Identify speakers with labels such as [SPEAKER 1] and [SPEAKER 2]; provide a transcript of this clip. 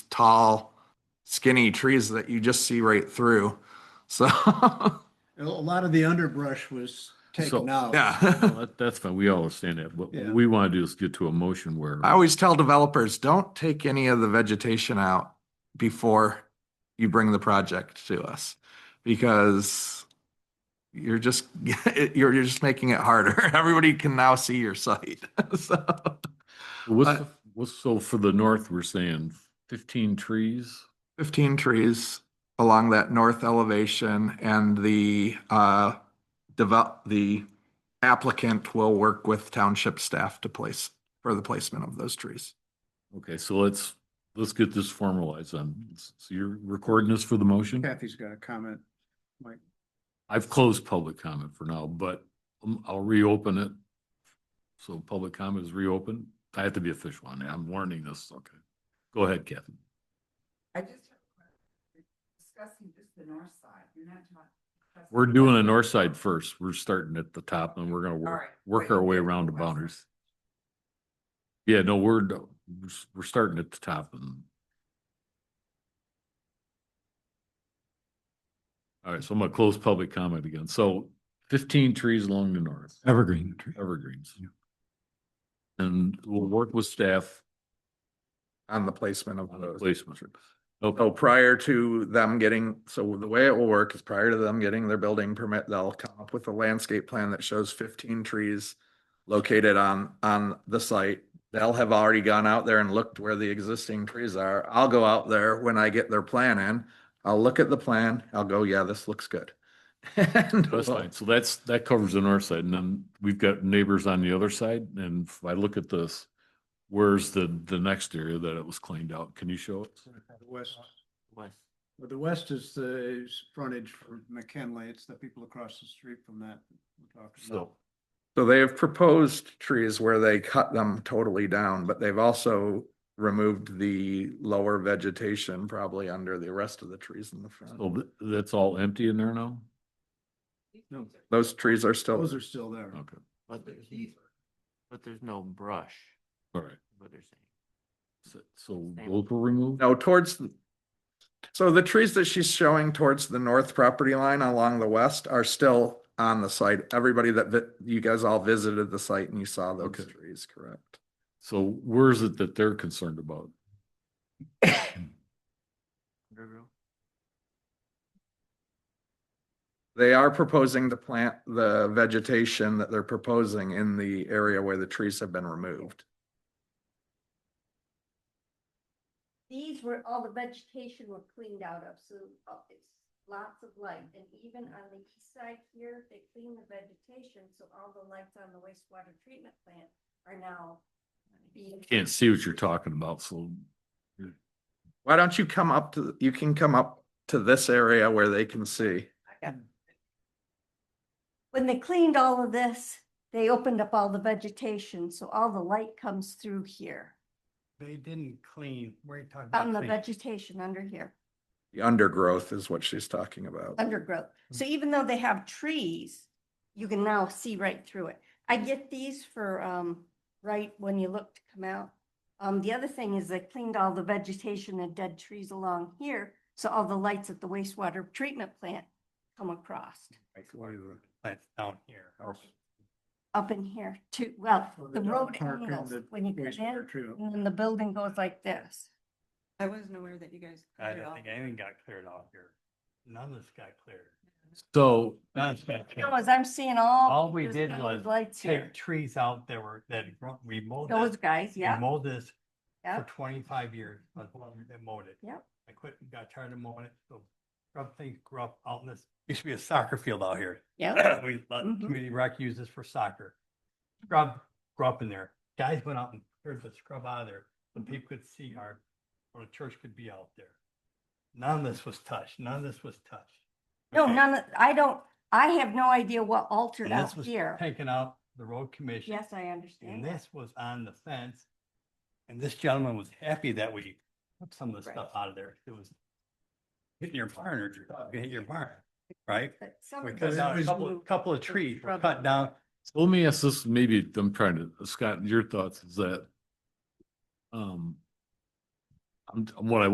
[SPEAKER 1] tall, skinny trees that you just see right through. So,
[SPEAKER 2] A lot of the underbrush was taken out.
[SPEAKER 1] yeah.
[SPEAKER 3] Well, that- That's fine. We all understand that. What
[SPEAKER 2] Yeah.
[SPEAKER 3] we want to do is get to a motion where,
[SPEAKER 1] I always tell developers, don't take any of the vegetation out before you bring the project to us because you're just, you're, you're just making it harder. Everybody can now see your site. So,
[SPEAKER 3] what's,
[SPEAKER 1] I-
[SPEAKER 3] the- what's, so for the north, we're saying fifteen trees?
[SPEAKER 1] fifteen trees along that north elevation and the, uh, develop, the applicant will work with township staff to place, for the placement of those trees.
[SPEAKER 3] Okay, so let's, let's get this formalized. Um, so you're recording this for the motion?
[SPEAKER 2] Kathy's got a comment.
[SPEAKER 3] I've closed public comment for now, but um, I'll reopen it. So public comment is reopened. I have to be official on that. I'm learning this. Okay. Go ahead, Kathy.
[SPEAKER 4] I just. have a question. We're Discussing just the north side, you're not talking.
[SPEAKER 3] We're doing the north side first. We're starting at the top and we're gonna
[SPEAKER 4] All
[SPEAKER 3] work,
[SPEAKER 4] right.
[SPEAKER 3] work our way around the boundaries. Yeah, no, we're, we're s- we're starting at the top and. All right, so I'm gonna close public comment again. So fifteen trees along the north,
[SPEAKER 5] Evergreen.
[SPEAKER 3] evergreens.
[SPEAKER 5] Yeah.
[SPEAKER 3] And we'll work with staff
[SPEAKER 1] On the placement of
[SPEAKER 3] on the
[SPEAKER 1] those.
[SPEAKER 3] placement.
[SPEAKER 1] So Oh, prior to them getting, so the way it will work is prior to them getting their building permit, they'll come up with a landscape plan that shows fifteen trees located on, on the site. They'll have already gone out there and looked where the existing trees are. I'll go out there when I get their plan in. I'll look at the plan. I'll go, yeah, this looks good. And
[SPEAKER 3] That's
[SPEAKER 1] we'll-
[SPEAKER 3] fine. So that's, that covers the north side and then we've got neighbors on the other side. And if I look at this, where's the, the next area that it was cleaned out? Can you show it?
[SPEAKER 2] The west. Well, the west is the is frontage for McKinley. It's the people across the street from that. we're talking about.
[SPEAKER 3] So,
[SPEAKER 1] So they have proposed trees where they cut them totally down, but they've also removed the lower vegetation probably under the rest of the trees in the
[SPEAKER 3] so
[SPEAKER 1] front.
[SPEAKER 3] th- that's all empty in there now?
[SPEAKER 2] No.
[SPEAKER 1] Those trees are still,
[SPEAKER 2] Those are still there.
[SPEAKER 3] Okay,
[SPEAKER 6] But there's, n- but there's no brush,
[SPEAKER 3] all right.
[SPEAKER 6] is what they're saying.
[SPEAKER 3] So- So those were removed?
[SPEAKER 1] no, towards the- so the trees that she's showing towards the north property line along the west are still on the site. Everybody that, vi- you guys all visited the site and you saw those
[SPEAKER 3] Okay.
[SPEAKER 1] trees, correct?
[SPEAKER 3] So where's it that they're concerned about?
[SPEAKER 6] Undergrowth.
[SPEAKER 1] They are proposing to plant the vegetation that they're proposing in the area where the trees have been removed.
[SPEAKER 7] These were, all the vegetation were cleaned out of, so uh, it's lots of light. And even on the east side here, they cleaned the vegetation, so all the lights on the wastewater treatment plant are now being.
[SPEAKER 3] Can't see what you're talking about, so.
[SPEAKER 1] Why don't you come up to, you can come up to this area where they can see.
[SPEAKER 7] When they cleaned all of this, they opened up all the vegetation, so all the light comes through here,
[SPEAKER 5] They didn't clean, we're talking
[SPEAKER 7] on
[SPEAKER 5] about
[SPEAKER 7] the
[SPEAKER 5] clean.
[SPEAKER 7] vegetation under here,
[SPEAKER 1] The undergrowth is what she's talking about.
[SPEAKER 7] undergrowth.
[SPEAKER 5] Hmm.
[SPEAKER 7] So even though they have trees, you can now see right through it. I get these for, um, right when you look to come out. Um, the other thing is they cleaned all the vegetation and dead trees along here, so all the lights at the wastewater treatment plant come across.
[SPEAKER 5] That's down here.
[SPEAKER 7] Up in here too, well,
[SPEAKER 2] So
[SPEAKER 7] the
[SPEAKER 2] dog
[SPEAKER 7] road
[SPEAKER 2] park and
[SPEAKER 7] angles
[SPEAKER 2] the
[SPEAKER 7] when you get
[SPEAKER 2] wastewater
[SPEAKER 7] in,
[SPEAKER 2] treatment.
[SPEAKER 7] and then the building goes like this.
[SPEAKER 4] I wasn't aware that you guys.
[SPEAKER 5] I
[SPEAKER 4] cleared it
[SPEAKER 5] don't
[SPEAKER 4] off.
[SPEAKER 5] think anything got cleared off here. None of this got cleared.
[SPEAKER 3] So
[SPEAKER 5] None of this got
[SPEAKER 7] You know,
[SPEAKER 5] cleared.
[SPEAKER 7] as I'm seeing all.
[SPEAKER 5] All we
[SPEAKER 7] there's
[SPEAKER 5] did
[SPEAKER 7] all
[SPEAKER 5] was
[SPEAKER 7] these Lights here,
[SPEAKER 5] Take trees out that were, that gro- we mowed.
[SPEAKER 7] those
[SPEAKER 5] this-
[SPEAKER 7] guys,
[SPEAKER 5] we
[SPEAKER 7] yeah,
[SPEAKER 5] Mowed this for
[SPEAKER 7] yeah,
[SPEAKER 5] twenty-five years, but they mowed it.
[SPEAKER 7] Yep.
[SPEAKER 5] I quit, got tired of mowing it, so scrub things grew up out in this, used to be a soccer field out here.
[SPEAKER 7] yeah.
[SPEAKER 5] we let
[SPEAKER 7] Mhm.
[SPEAKER 5] community rec use this for soccer. Scrub, grew up in there. Guys went out and cleared the scrub out of there, so
[SPEAKER 7] Mm-hmm.
[SPEAKER 5] people could see our, or the church could be out there. None of this was touched, none of this was touched.
[SPEAKER 7] No,
[SPEAKER 5] Okay?
[SPEAKER 7] none, of I don't, I have no idea what altered
[SPEAKER 5] And this
[SPEAKER 7] out
[SPEAKER 5] was
[SPEAKER 7] here.
[SPEAKER 5] Taken out the road commission.
[SPEAKER 7] Yes, I
[SPEAKER 5] And
[SPEAKER 7] understand. that.
[SPEAKER 5] this was on the fence. And this gentleman was happy that we took some of the
[SPEAKER 7] Right.
[SPEAKER 5] stuff out of there. It was hitting your barn or your dog hitting your barn, right?
[SPEAKER 7] But some
[SPEAKER 5] We
[SPEAKER 7] of
[SPEAKER 5] cut
[SPEAKER 7] those
[SPEAKER 5] down a
[SPEAKER 7] things
[SPEAKER 5] couple,
[SPEAKER 7] moved.
[SPEAKER 5] couple of trees, were
[SPEAKER 7] shrubs.
[SPEAKER 5] cut down,
[SPEAKER 3] let me ask this, maybe I'm trying to, Scott, your thoughts is that. Um. I'm, what I